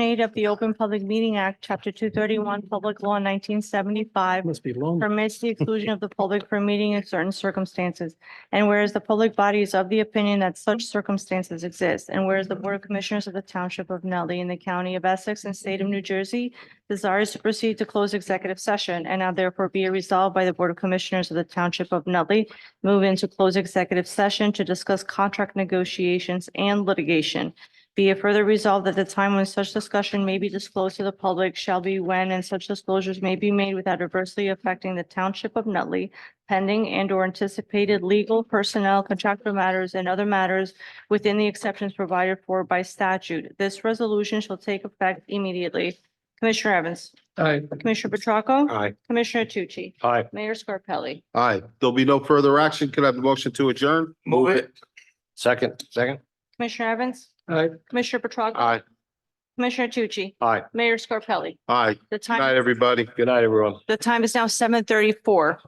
eight of the Open Public Meeting Act, Chapter two thirty-one, Public Law nineteen seventy-five Must be long. permits the exclusion of the public from meeting in certain circumstances. And whereas the public body is of the opinion that such circumstances exist, and whereas the Board of Commissioners of the Township of Nutley in the County of Essex and State of New Jersey desires to proceed to close executive session, and now therefore be it resolved by the Board of Commissioners of the Township of Nutley, move into close executive session to discuss contract negotiations and litigation. Be it further resolved that the time when such discussion may be disclosed to the public shall be when and such disclosures may be made without adversely affecting the township of Nutley pending and or anticipated legal personnel contractual matters and other matters within the exceptions provided for by statute. This resolution shall take effect immediately. Commissioner Evans, Aye. Commissioner Petracca, Aye. Commissioner Tucci, Aye. Mayor Scarpelli. Aye. There'll be no further action. Could I have a motion to adjourn? Move it. Second. Second. Commissioner Evans, Aye. Commissioner Petracca, Aye. Commissioner Tucci, Aye. Mayor Scarpelli. Aye. The Good night, time, everybody. Good night, everyone. the time is now seven thirty-four.